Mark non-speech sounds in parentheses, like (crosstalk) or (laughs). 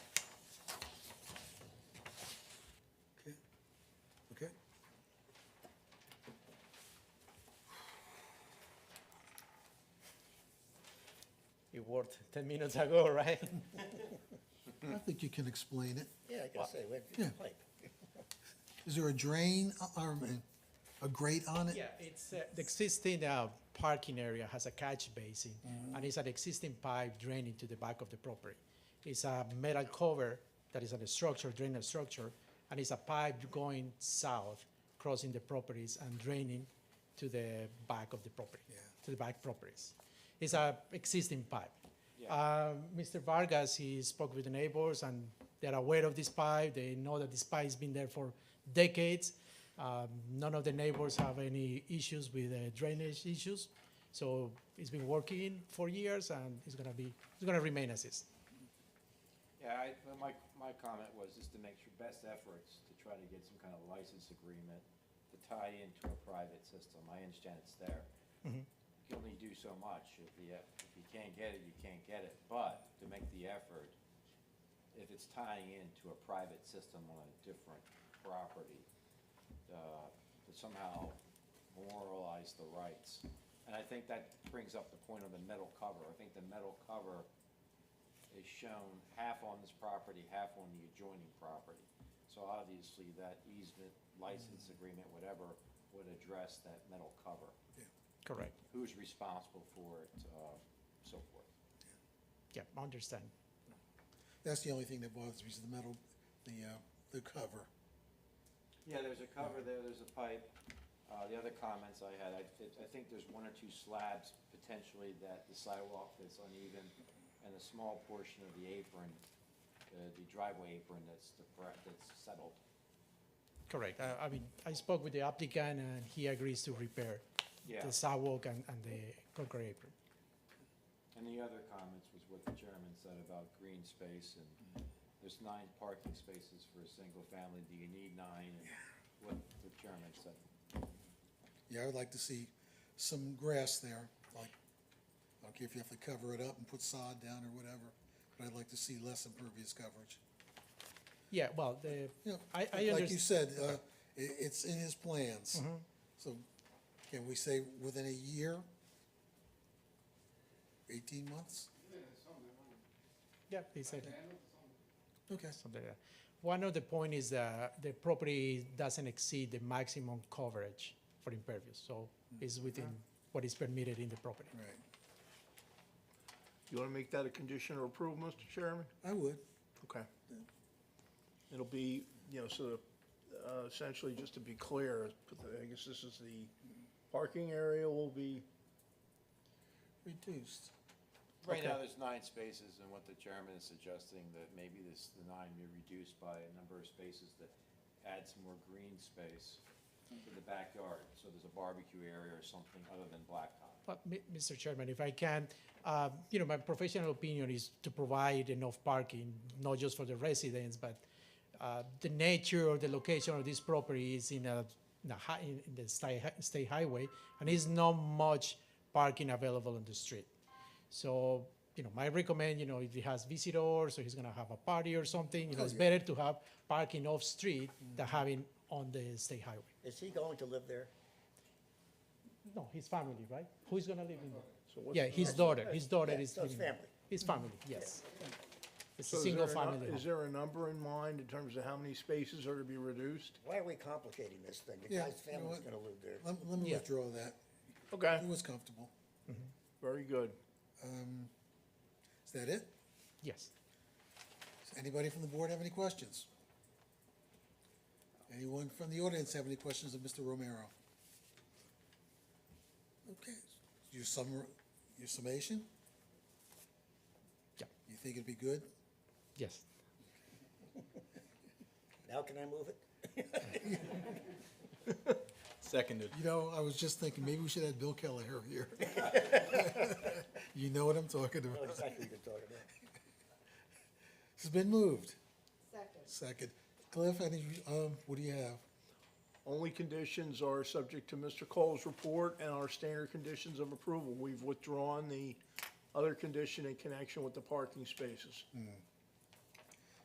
word 10 minutes ago, (laughs) right? I think you can explain it. Yeah, I can say, we have Yeah. a pipe. (laughs) Is there a drain, uh, or a grate on it? Yeah, it's, uh, the existing uh, parking area has a catch basin, and it's an existing pipe draining to the back of the property. It's a metal cover that is on a structure, drainage structure, and it's a pipe going south, crossing the properties and draining to the back of the property, to the back properties. It's a existing pipe. Uh, Mr. Vargas, he spoke with the neighbors, and they're aware of this pipe. They know that this pipe's been there for decades. Um, None of the neighbors have any issues with uh, drainage issues. So it's been working for years, and it's gonna be, it's gonna remain as is. Yeah, I, well, my, my comment was just to make your best efforts to try to get some kind of license agreement to tie into a private system. I understand it's there. You can only do so much. If you, if you can't get it, you can't get it. But to make the effort, if it's tying into a private system on a different property, uh, to somehow moralize the rights. And I think that brings up the point of the metal cover. I think the metal cover is shown half on this property, half on the adjoining property. So obviously, that easement, license agreement, whatever, would address that metal cover. Correct. Who's responsible for it, uh, so forth. Yeah, I understand. That's the only thing that bothers me, is the metal, the, uh, the cover. Yeah, there's a cover there, there's a pipe. Uh, the other comments I had, I, thi- I think there's one or two slabs potentially that the sidewalk that's uneven and a small portion of the apron, uh, the driveway apron that's depre- that's settled. Correct. I- I mean, I spoke with the applicant, and he agrees to repair Yeah. the sidewalk and and the concrete apron. And the other comments was what the chairman said about green space and there's nine parking spaces for a single family, do you need nine? And What the chairman said. Yeah, I would like to see some grass there, like, I don't care if you have to cover it up and put sod down or whatever, but I'd like to see less impervious coverage. Yeah, well, the, Yeah, I, I Mm-hmm. Like you understand. said, uh, i it's in his plans. So can we say within a year? Eighteen months? Yeah, he said. Okay, something like that. One of the point is that the property doesn't exceed the maximum coverage for impervious, so it's within what is permitted in the property. right, You want to make that a condition of approval, Mr. Chairman? I would. Okay. It'll be, you know, sort of, uh, essentially, just to be clear, I guess this is the parking area will be, Reduced. Right now, there's nine spaces and what the chairman is suggesting that maybe this, the nine be reduced by a number of spaces that adds more green space to the backyard. So there's a barbecue area or something other than blacktop. But, Mi- Mr. Chairman, if I can, uh, you know, my professional opinion is to provide enough parking, not just for the residents, but uh, the nature or the location of this property is in a, in a hi- in in the state, state highway, and is not much parking available on the street. So, you know, my recommend, you know, if he has visitors, or he's gonna have a party or something, you know, it's better to have parking off-street than having on the state highway. Is he going to live there? No, his family, right? Who's gonna live in there? so what's? Yeah, his daughter, his daughter is. so it's living there. family. His family, yes. It's so a is there single nu- family Is home. there a number in mind in terms of how many spaces are to be reduced? Why are we complicating this thing? The Yeah, guy's you know family's what? gonna live there. Let, let me Yeah. withdraw that. Okay, It was comfortable. very good. Um, is that it? Yes. Does anybody from the board have any questions? Anyone from the audience have any questions of Mr. Romero? Okay, your summer, your summation? Yeah. You think it'd be good? Yes. Now can I move it? Seconded. You know, I was just thinking, maybe we should have Bill Kelleher (laughs) here. You know what I'm talking I know about. Oh, exactly what you're talking about. It's been moved. Second. Second. Cliff, any, um, what do you have? Only conditions are subject to Mr. Cole's report and our standard conditions of approval. We've withdrawn the other condition in connection with the parking spaces.